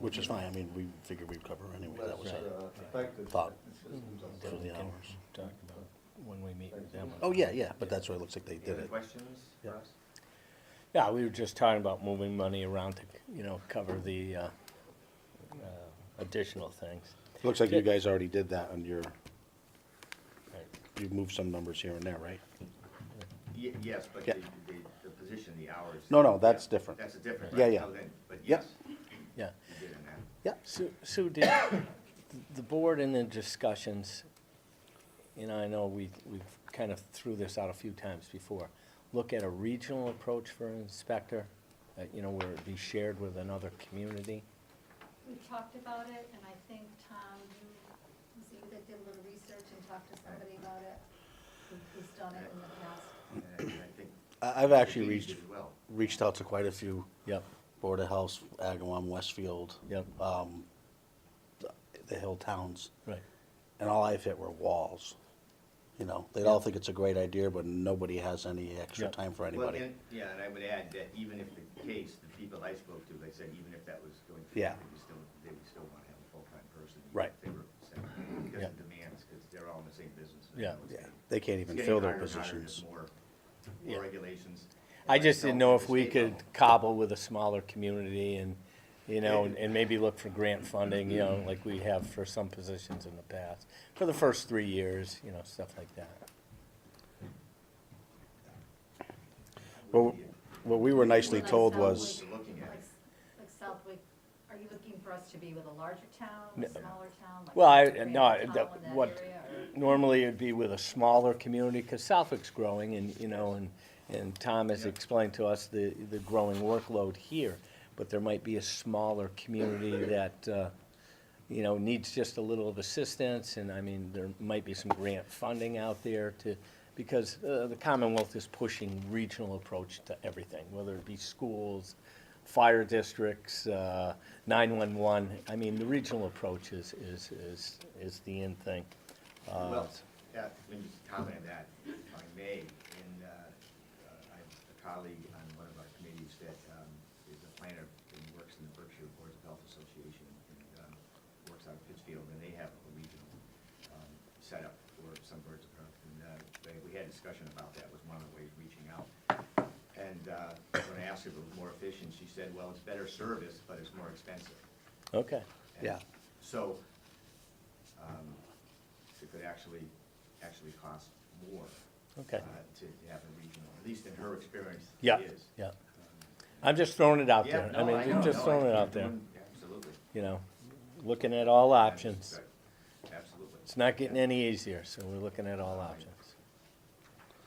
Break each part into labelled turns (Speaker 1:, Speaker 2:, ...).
Speaker 1: which is fine, I mean, we figured we'd cover anyway, that was
Speaker 2: uh,
Speaker 1: our
Speaker 3: Effective
Speaker 1: thought
Speaker 3: systems of-
Speaker 1: for the hours.
Speaker 4: Talk about when we meet with them.
Speaker 1: Oh, yeah, yeah, but that's why it looks like they did
Speaker 2: Any
Speaker 1: it.
Speaker 2: questions for
Speaker 1: Yeah.
Speaker 2: us?
Speaker 4: Yeah, we were just talking about moving money around to, you know, cover the, uh, uh, additional things.
Speaker 1: Looks like you guys already did that on your,
Speaker 4: Right.
Speaker 1: you've moved some numbers here and there, right?
Speaker 2: Ye- yes, but
Speaker 1: Yeah.
Speaker 2: the, the, the position, the hours.
Speaker 1: No, no, that's
Speaker 2: yeah,
Speaker 1: different.
Speaker 2: That's a different.
Speaker 1: Yeah,
Speaker 2: right,
Speaker 1: yeah.
Speaker 2: so then-
Speaker 1: Yep.
Speaker 2: But yes,
Speaker 4: Yeah.
Speaker 2: you did in that.
Speaker 4: Sue, Sue, did the board in the discussions, you know, I know we, we've kind of threw this out a few times before, look at a regional approach for inspector, uh, you know, where it be shared with another community?
Speaker 5: We talked about it, and I think, Tom, you, was it you that did a little research and talked to somebody about it? who- Who's done it in the past?
Speaker 2: And I- and I think
Speaker 1: I, I've actually
Speaker 2: you
Speaker 1: reached,
Speaker 2: did well.
Speaker 1: reached out to quite a few,
Speaker 4: Yep,
Speaker 1: Board of Health, Agawam, Westfield,
Speaker 4: yep,
Speaker 1: um, the- the hill towns,
Speaker 4: right.
Speaker 1: and all I've hit were walls. You know, they all think it's a great idea, but nobody has any extra
Speaker 4: Yeah.
Speaker 1: time for
Speaker 2: Well,
Speaker 1: anybody.
Speaker 2: and- Yeah, and I would add that even if the case, the people I spoke to, they said even if that was going to.
Speaker 1: Yeah.
Speaker 2: They would still, they would still want to have a full-time person. even
Speaker 1: Right.
Speaker 2: if They were, sent, because
Speaker 4: Yeah.
Speaker 2: of demands, because they're all in the same business. and
Speaker 4: Yeah.
Speaker 2: it's
Speaker 1: Yeah,
Speaker 2: getting-
Speaker 1: they can't
Speaker 2: it's
Speaker 1: even
Speaker 2: getting
Speaker 1: fill their
Speaker 2: harder and harder,
Speaker 1: positions.
Speaker 2: there's More,
Speaker 4: Yeah.
Speaker 2: more regulations.
Speaker 4: I
Speaker 2: And
Speaker 4: just didn't
Speaker 2: don't
Speaker 4: know
Speaker 2: at
Speaker 4: if
Speaker 2: the
Speaker 4: we
Speaker 2: state
Speaker 4: could
Speaker 2: level-
Speaker 4: cobble with a smaller community and, you know, and- and maybe look for grant funding, you know, like we have for some positions in the past, for the first three years, you know, stuff like that.
Speaker 1: Well, what we were nicely
Speaker 5: Like
Speaker 1: told
Speaker 5: Southwick-
Speaker 1: was,
Speaker 2: Looking at it.
Speaker 5: Like like Southwick, are you looking for us to be with a larger town,
Speaker 4: No.
Speaker 5: a smaller town? like
Speaker 4: Well, I-
Speaker 5: Grand
Speaker 4: no, I-
Speaker 5: Town
Speaker 4: that-
Speaker 5: in that
Speaker 4: what-
Speaker 5: area, or-
Speaker 4: Normally, it'd be with a smaller community, because Southwick's growing, and, you know, and, and Tom has explained to us the, the growing workload here, but there might be a smaller community that, uh, you know, needs just a little of assistance, and I mean, there might be some grant funding out there to, because uh, the Commonwealth is pushing regional approach to everything, whether it be schools, fire districts, uh, 911. I mean, the regional approach is, is, is, is the end thing. Uh,
Speaker 2: Well, that, let me just comment on that, if I may, and, uh, uh, I have a colleague on one of our committees that, um, is a planner and works in the Berkshire Boards of Health Association, and, um, works out of Pittsfield, and they have a regional, um, setup for some birds of health, and, uh, they, we had a discussion about that, was one of the ways reaching out. And, uh, when I asked if it was more efficient, she said, well, it's better service, but it's more expensive.
Speaker 4: Okay,
Speaker 2: And
Speaker 1: Yeah.
Speaker 2: So, um, it could actually, actually cost more.
Speaker 4: Okay.
Speaker 2: uh, To have a regional, at least in her experience, it
Speaker 4: yeah,
Speaker 2: is.
Speaker 4: yeah. I'm just throwing it out there.
Speaker 2: Yeah,
Speaker 4: I
Speaker 2: no,
Speaker 4: mean,
Speaker 2: know,
Speaker 4: just
Speaker 2: no,
Speaker 4: throwing it
Speaker 2: I-
Speaker 4: out there,
Speaker 2: Absolutely.
Speaker 4: you know, looking at all options.
Speaker 2: Right, Absolutely.
Speaker 4: It's not getting any easier, so we're looking at all options.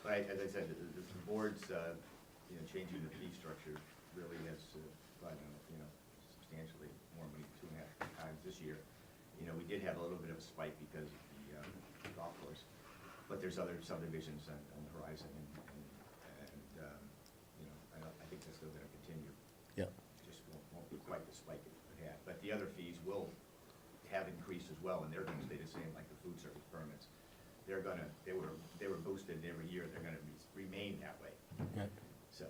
Speaker 2: But I- as I said, the, the the board's, uh, you know, changing the fee structure really has, uh, brought in, you know, substantially more money, two and a half times this year. You know, we did have a little bit of a spike because of the uh, golf course, but there's other subdivisions on, on the horizon and, and- and, um, you know, I don't, I think that's still gonna continue.
Speaker 4: Yeah,
Speaker 2: Just won't, won't be quite the spike it we had, but the other fees will have increased as well, and they're gonna stay the same, like the food service permits. They're gonna, they were, they were boosted every year, they're gonna be- remain that way,
Speaker 4: yeah.
Speaker 2: so.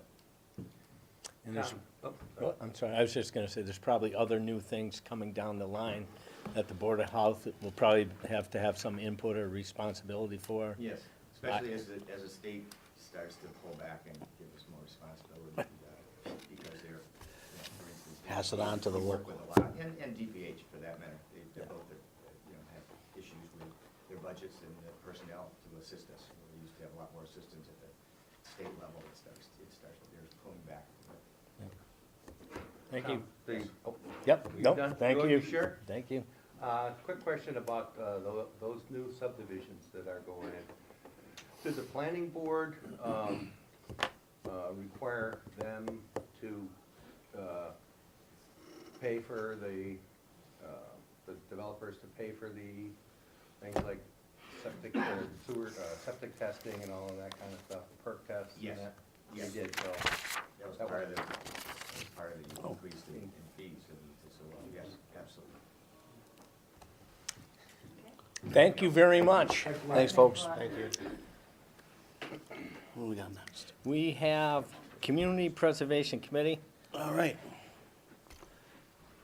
Speaker 4: And there's, Oh, I'm sorry, I was just gonna say, there's probably other new things coming down the line that the Board of Health will probably have to have some input or responsibility for.
Speaker 2: Yes, especially as the, as the state starts to pull back and give us more responsibility, uh, because they're, you know, for instance.
Speaker 1: Pass it on to the
Speaker 2: we work
Speaker 1: local.
Speaker 2: with a lot, And, and DPH for that matter, they, they both are, uh, you know, have issues with their budgets and the personnel to assist us. We used to have a lot more assistance at the state level, it starts, it starts, they're pulling back.
Speaker 4: Thank you.
Speaker 6: The, oh,
Speaker 4: Yep,
Speaker 6: You
Speaker 4: no,
Speaker 6: done?
Speaker 4: thank
Speaker 6: Roy,
Speaker 4: you.
Speaker 6: you sure?
Speaker 4: Thank you.
Speaker 6: uh, quick question about, uh, tho- those new subdivisions that are going in. Did the planning board, um, uh, require them to, uh, pay for the, uh, the developers to pay for the things like septic, or sewer, uh, septic testing and all of that kind of stuff, perk tests and
Speaker 2: Yes,
Speaker 6: that?
Speaker 2: yes.
Speaker 6: They did, so.
Speaker 2: That was
Speaker 6: That
Speaker 2: part of
Speaker 6: was-
Speaker 2: the, that was part of
Speaker 1: Oh.
Speaker 2: the increase in in fees, and so, uh, yes, absolutely.
Speaker 4: Thank you very much.
Speaker 1: Thanks, folks.
Speaker 5: But-
Speaker 1: What do we got next?
Speaker 4: We have Community Preservation Committee.
Speaker 1: All right,